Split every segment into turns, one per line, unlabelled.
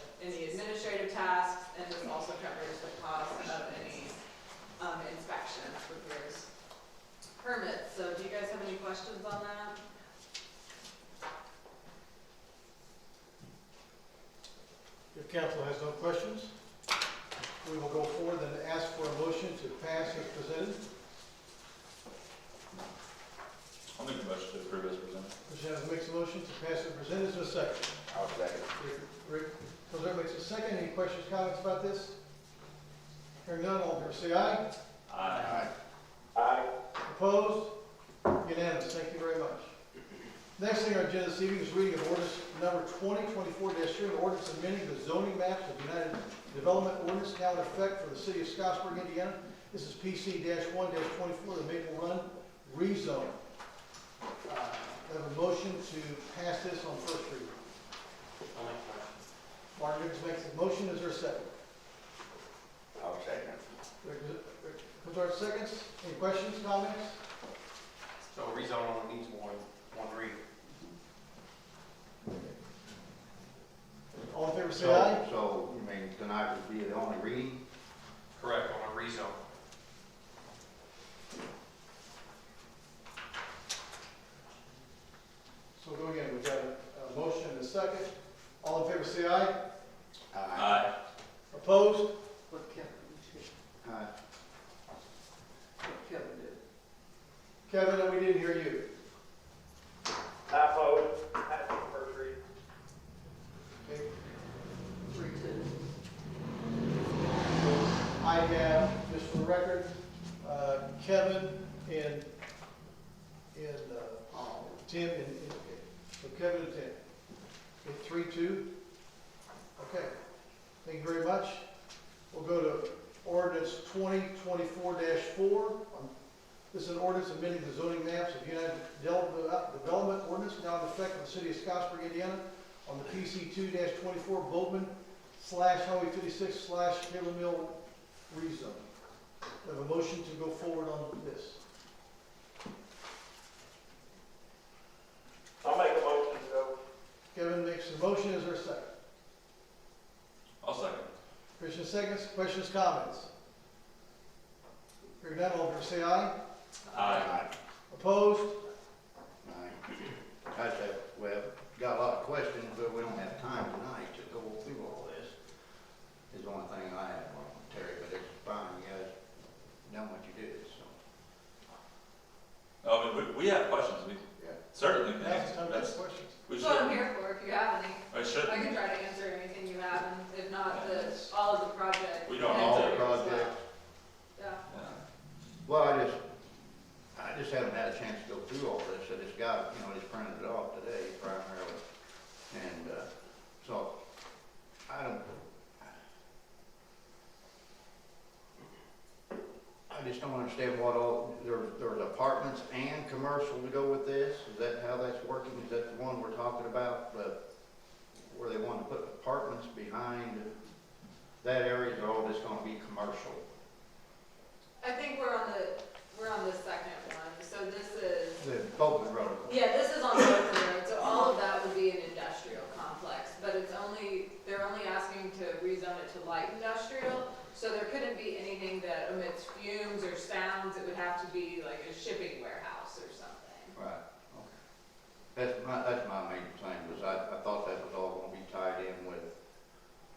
um, permits, so do you guys have any questions on that?
If council has no questions, we will go forward and ask for a motion to pass as presented,
I'll make a motion to approve as presented.
Mr. Jennings makes a motion to pass as presented, is there a second?
I'll second.
Rick- Rick Cosar makes a second, any questions, comments about this? Hearing none, all in favor, say aye.
Aye.
Opposed? Unanimous, thank you very much. Next thing on our agenda this evening is reading of ordinance number twenty twenty-four three, an ordinance amending the zoning maps of United Development Ordinance now in effect for the city of Scottsburg, Indiana. This is PC one twenty-four, the Maple Run rezone. Uh, Have a motion to pass this on first reading. Martin Jacobs makes a motion, is there a second?
I'll second.
Rick- Rick Cosar seconds, any questions, comments?
So rezone only needs one, one read.
All in favor, say aye.
So, so, you mean, tonight would be the only reading?
Correct, on a rezone.
So go again, we've got a, a motion and a second. All in favor, say aye.
Aye.
Opposed?
What Kevin did,
Aye.
what Kevin did.
Kevin, and we didn't hear you.
I vote, I think first reading.
Okay,
Three, two.
so I have, just for the record, uh, Kevin and, and, uh, Tim and, and, so Kevin and Tim. Okay, three, two. Okay, thank you very much. We'll go to ordinance twenty twenty-four four. Um, This is an ordinance amending the zoning maps of United Del- uh, Development Ordinance now in effect in the city of Scottsburg, Indiana, on the PC two twenty-four Bozeman slash Highway fifty-six slash Taylor Mill rezone. We have a motion to go forward on this.
I'll make a motion to go.
Kevin makes the motion, is there a second?
I'll second.
Christian seconds, questions, comments? Hearing none, all in favor say aye.
Aye.
Opposed?
Aye. I said, well, got a lot of questions, but we don't have time tonight to go through all this. Is the only thing I have on Terry, but it's fine, you guys done what you did, so.
No, I mean, Oh, we, we have questions, we
Yeah.
certainly can
That's
answer.
time for
That's,
questions.
we
That's what I'm
should,
here for, if you have any.
we should,
I can try to answer anything you have, and if not, the, all of the project.
We don't
All
have
the
to.
projects,
Yeah.
yeah.
well, I just, I just haven't had a chance to go through all this, I just got, you know, just printed it off today primarily. And, uh, so, I don't. I just don't understand what all, there, there's apartments and commercial to go with this, is that how that's working? Is that the one we're talking about, the, where they want to put apartments behind that area, is all just gonna be commercial?
I think we're on the, we're on the second one, so this is,
The Bolton Road.
yeah, this is on the road, so all of that would be an industrial complex, but it's only, they're only asking to rezone it to light industrial, so there couldn't be anything that emits fumes or sounds, it would have to be like a shipping warehouse or something.
Right, okay. That's my, that's my main thing, was I, I thought that was all gonna be tied in with,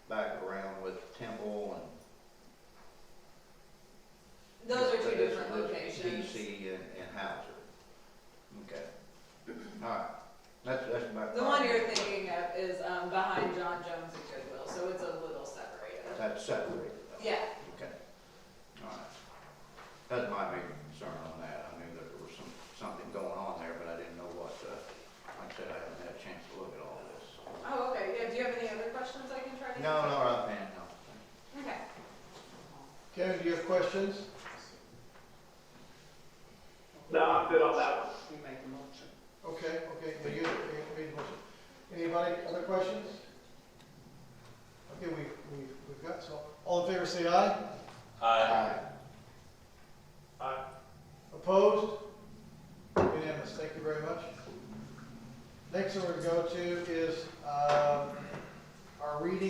back around with Temple and
Those are two
This-
different
this
locations.
DC and, and Hauser. Okay. All right. That's, that's my.
The one you're thinking of is, um, behind John Jones and Goodwill, so it's a little separated.
That's separated. though.
Yeah,
Okay. All right. That's my big concern on that. I knew that there was some, something going on there, but I didn't know what, uh, like I said, I haven't had a chance to look at all this.
oh, okay, yeah, do you have any other questions I can try to?
No, no, I'm, no.
Okay.
Kevin, do you have questions?
No, I'm good on that one.
You make a motion.
Okay, okay, but you, you made the motion. Anybody, other questions? Okay, we, we, we've got, so, all in favor say aye.
Aye.
Aye.
Opposed? Unanimous, thank you very much. Next one we're gonna go to is, um, uh, our reading